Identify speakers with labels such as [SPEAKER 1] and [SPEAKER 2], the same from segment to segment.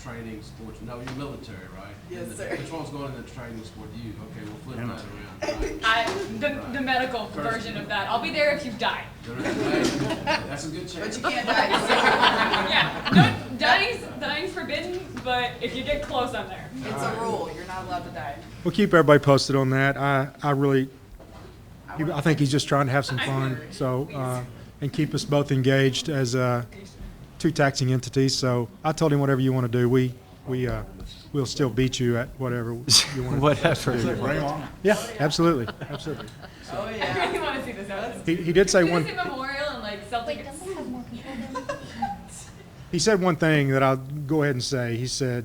[SPEAKER 1] training sports, no, you're military, right?
[SPEAKER 2] Yes,
[SPEAKER 1] And the
[SPEAKER 2] sir.
[SPEAKER 1] Patrol's going into training sport, you, okay, we'll flip that around. right.
[SPEAKER 3] I, the, the medical version of that. I'll be there if you die.
[SPEAKER 1] That's a good
[SPEAKER 2] But
[SPEAKER 1] chance.
[SPEAKER 2] you can't die.
[SPEAKER 3] Yeah, no, dying's, dying's forbidden, but if you get close, I'm there.
[SPEAKER 2] It's a rule, you're not allowed to die.
[SPEAKER 4] We'll keep everybody posted on that. I, I really, he- I think he's just trying to have some
[SPEAKER 3] I
[SPEAKER 4] fun,
[SPEAKER 3] agree.
[SPEAKER 4] so, uh, and keep us both engaged as, uh, two taxing entities, so I told him whatever you want to do, we, we, uh, we'll still beat you at whatever you want.
[SPEAKER 5] Whatever.
[SPEAKER 4] Yeah, absolutely, absolutely.
[SPEAKER 2] Oh,
[SPEAKER 3] I
[SPEAKER 2] yeah.
[SPEAKER 3] really want to see this happen.
[SPEAKER 4] He, he did say
[SPEAKER 3] Do
[SPEAKER 4] one.
[SPEAKER 3] this at Memorial and like Celtic.
[SPEAKER 4] He said one thing that I'll go ahead and say. He said,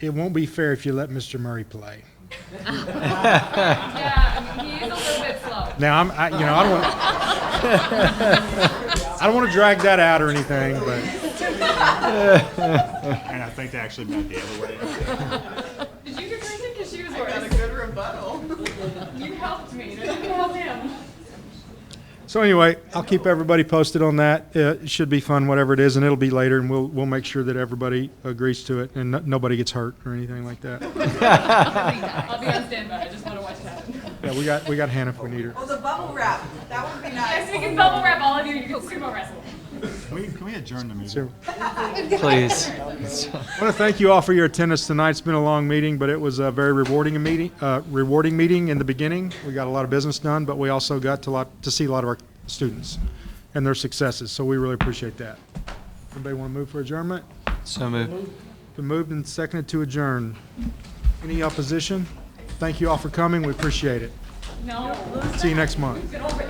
[SPEAKER 4] "It won't be fair if you let Mr. Murray play."
[SPEAKER 3] Yeah, I mean, he is a little bit slow.
[SPEAKER 4] Now I'm, I, you know, I don't want, I don't want to drag that out or anything, but
[SPEAKER 5] And I think they actually meant the other way.
[SPEAKER 3] Did you get crazy? Because she was
[SPEAKER 2] I got a
[SPEAKER 3] worse.
[SPEAKER 2] good rebuttal.
[SPEAKER 3] You helped me. Now you can help him.
[SPEAKER 4] so anyway, I'll keep everybody posted on that. Uh, It should be fun, whatever it is, and it'll be later, and we'll we'll make sure that everybody agrees to it and no, nobody gets hurt or anything like that.
[SPEAKER 3] I'll be on standby. I just want to watch it happen.
[SPEAKER 4] Yeah, we got we got Hannah if we need her.
[SPEAKER 2] Well, the bubble wrap, that would be
[SPEAKER 3] Yes, we
[SPEAKER 2] nice.
[SPEAKER 3] can bubble wrap all of you. You can sumo wrestle.
[SPEAKER 5] Can we, can we adjourn the
[SPEAKER 4] So,
[SPEAKER 5] meeting?
[SPEAKER 6] Please.
[SPEAKER 4] I want to thank you all for your attendance tonight. It's been a long meeting, but it was a very rewarding a meeting, uh, rewarding meeting in the beginning. We got a lot of business done, but we also got to lot, to see a lot of our students and their successes, so we really appreciate that. Anybody want to move for adjournment?
[SPEAKER 6] So moved.
[SPEAKER 4] Been moved and seconded to adjourn. Any opposition? Thank you all for coming. We appreciate it.
[SPEAKER 3] No.
[SPEAKER 4] See you next month.
[SPEAKER 3] Get over it.